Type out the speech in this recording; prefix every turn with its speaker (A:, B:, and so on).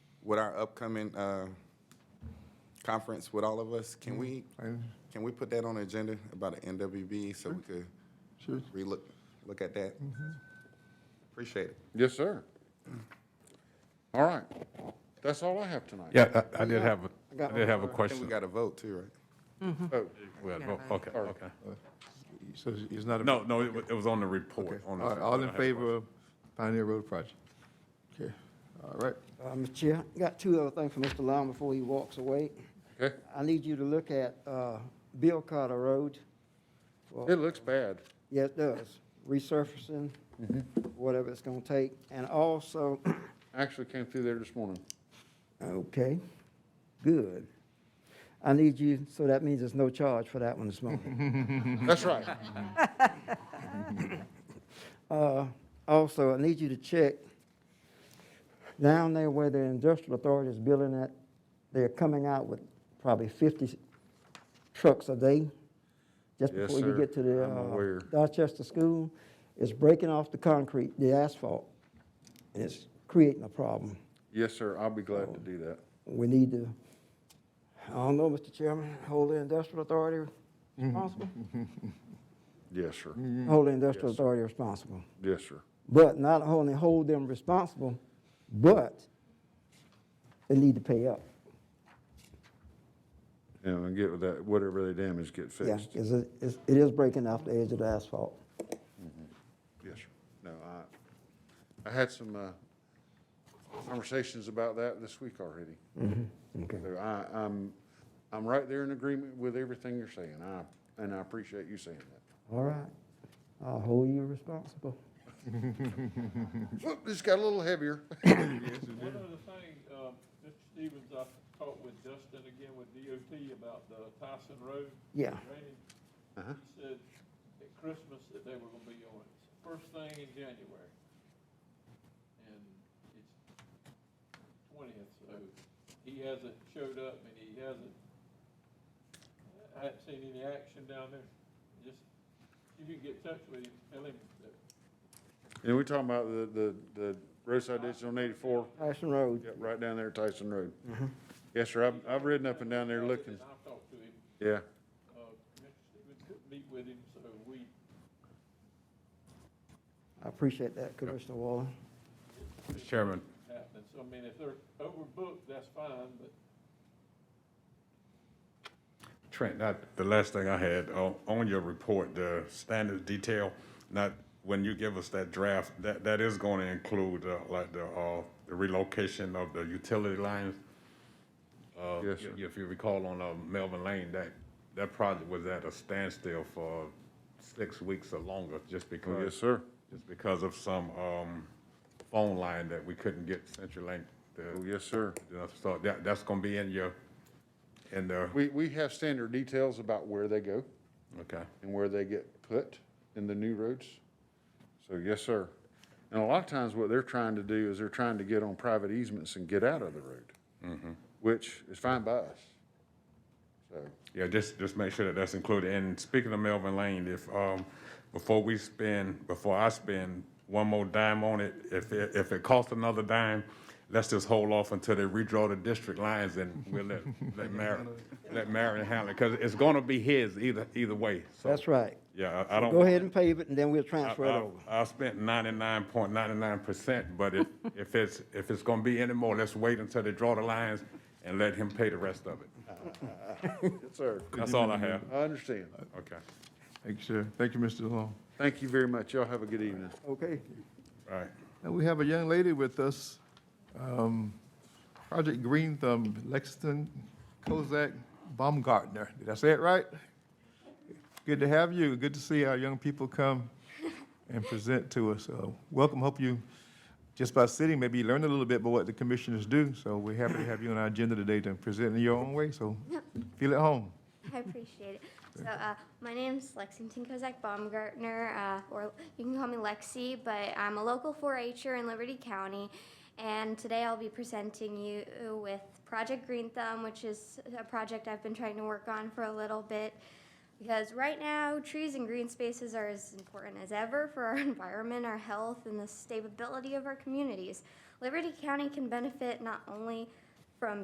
A: with our upcoming uh, conference with all of us, can we, can we put that on the agenda about the NWB so we could
B: Sure.
A: relook, look at that? Appreciate it.
C: Yes, sir. All right. That's all I have tonight.
D: Yeah, I I did have, a I did have a
A: I think we
D: question.
A: got a vote too, right?
C: Oh,
D: Well, oh, Okay, okay.
B: So it's- it's not a.
D: No, no, it wa- it was on the
B: Okay.
D: report.
B: All
D: on the-
B: right, all
D: I
B: in
D: have a
B: favor of Pioneer Road project? Okay, all right.
E: Uh, Mr. Chair, I got two other things for Mr. Long before he walks away.
C: Okay.
E: I need you to look at uh, Bill Carter Road.
C: It looks bad.
E: Yeah, it does. Resurfacing, whatever it's gonna take. And also,
C: I Actually came through there this morning.
E: okay, good. I need you, so that means there's no charge for that one this morning.
C: That's right.
E: Uh, Also, I need you to check down there where the industrial authority is building that, they're coming out with probably 50 trucks a day. Just
C: Yes,
E: before you
C: sir.
E: get to the
C: I'm aware.
E: uh, Dorchester School, it's breaking off the concrete, the asphalt, and it's creating a problem.
C: Yes, sir. I'll be glad to do that.
E: We need to, I don't know, Mr. Chairman, hold the industrial authority responsible?
C: Yes, sir.
E: Hold the industrial authority responsible.
C: Mm-hmm. Yes, sir.
E: But not only hold them responsible, but they need to pay up.
C: Yeah, and get with that, whatever they damage, get
E: Yeah,
C: fixed. Yes,
E: it's, a- it's- it is breaking off the edge of the asphalt.
C: sir. No, I, I had some, uh, conversations about that this week already.
E: Okay.
C: So I, I'm, I'm right there in agreement with everything you're saying. I, and I appreciate you saying that.
E: All right. I'll hold you responsible.
C: Whoop, This got a little heavier.
F: One other thing, um, Mr. Stevens, I talked with Justin again with DOT about the Tyson Road.
E: Yeah.
F: drainage. He said at Christmas that they were gonna be on it, first thing in January. And it's twentieth, so he hasn't showed up and he hasn't, I haven't seen any action down there. Just, if you can get in touch with him, tell him that
C: And we're talking about the, the, the roadside ditch on eighty-four,
E: Tyson Road.
C: yeah, right down there at Tyson Road. Yes, sir, I've, I've ridden up and down there looking,
F: I'll talk to him.
C: yeah.
F: Uh, Mr. Stevens couldn't meet with him, so we
E: I appreciate that, Commissioner Waller.
D: Mr. Chairman,
F: happened. So I mean, if they're overbooked, that's fine, but
D: Trent, that, the last thing I had, on, on your report, the standard detail, not, when you give us that draft, that, that is going to include, uh, like, the, uh, the relocation of the utility lines. Uh,
C: Yes,
D: if-
C: sir.
D: If you recall on, uh, Melvin Lane, that, that project was at a standstill for six weeks or longer, just because.
C: Oh, yes, sir.
D: Just because of some, um, phone line that we couldn't get CenturyLink
C: Oh,
D: to,
C: yes, sir.
D: so that, that's gonna be in your, in the,
C: We, we have standard details about where they go
D: okay.
C: and where they get put in the new roads. So, yes, sir. And a lot of times what they're trying to do is they're trying to get on private easements and get out of the road, Mm-hmm. which is fine by us. So,
D: Yeah, just, just make sure that that's included. And speaking of Melvin Lane, if, um, before we spend, before I spend one more dime on it, if, it- if it costs another dime, let's just hold off until they redraw the district lines and we'll let, let Marion, let Marion handle it, because it's gonna be his either, either way, so.
E: That's right.
D: Yeah, I I don't.
E: Go ahead and pave it, and then we'll transfer it
D: I-
E: over.
D: I I spent ninety-nine point ninety-nine percent, but if, if it's, if it's gonna be any more, let's wait until they draw the lines and let him pay the rest of it.
C: yes, sir.
D: That's all I have.
C: I understand.
D: Okay.
B: Thank you, sir. Thank you, Mr. Long.
C: Thank you very much. Y'all have a good evening.
E: Okay.
D: All right.
B: And we have a young lady with us, um, Project Green Thumb, Lexington Kozak Baumgartner. Did I say it right? Good to have you. Good to see our young people come and present to us. So welcome. Hope you, just by sitting, maybe you learned a little bit about what the commissioners do. So we're happy to have you on our agenda today to present in your own way. So feel at home.
G: I appreciate it. So, uh, my name's Lexington Kozak Baumgartner, uh, or you can call me Lexi, but I'm a local 4-H'er in Liberty County. And today I'll be presenting you with Project Green Thumb, which is a project I've been trying to work on for a little bit. Because right now, trees and green spaces are as important as ever for our environment, our health, and the stability of our communities. Liberty County can benefit not only